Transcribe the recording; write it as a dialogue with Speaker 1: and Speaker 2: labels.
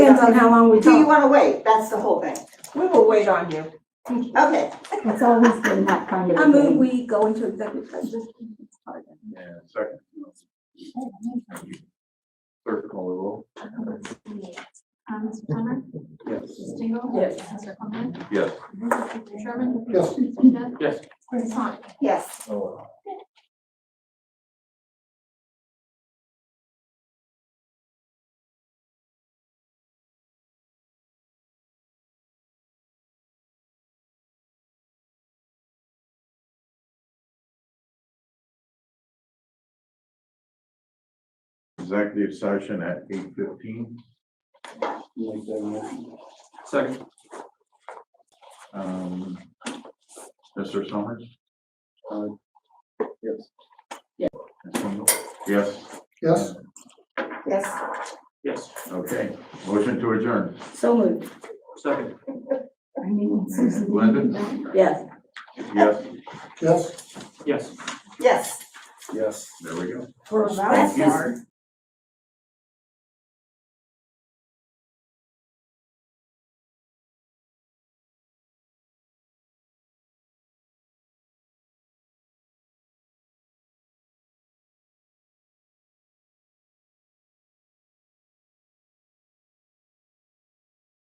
Speaker 1: depends on how long we
Speaker 2: Do you
Speaker 1: talk.
Speaker 2: wanna wait? That's the whole thing.
Speaker 1: We will wait on you.
Speaker 2: Okay,
Speaker 3: It's always been that kind of. a
Speaker 1: I move
Speaker 3: thing.
Speaker 1: we go into executive session.
Speaker 4: Yeah, second. Third call the roll.
Speaker 5: Um, Mr. Plummer?
Speaker 4: Yes.
Speaker 5: Mr. Stingle?
Speaker 1: Yes.
Speaker 5: Mr. Coleman?
Speaker 4: Yes.
Speaker 5: Mr. Sherman?
Speaker 4: Yes.
Speaker 5: Mr. Smith?
Speaker 4: Yes.
Speaker 5: Mrs. Sonic?
Speaker 2: yes.
Speaker 4: Oh. Executive session at eight fifteen. Second. Um, Mr. Summers? Yes. Yes,
Speaker 6: Yes,
Speaker 2: Yes,
Speaker 7: Yes,
Speaker 4: okay. Motion to adjourn.
Speaker 1: So moved.
Speaker 7: second,
Speaker 3: I mean, Susan.
Speaker 4: Linda?
Speaker 1: Yes.
Speaker 4: Yes.
Speaker 6: yes.
Speaker 7: yes.
Speaker 2: yes.
Speaker 4: Yes. There we go.
Speaker 1: That's just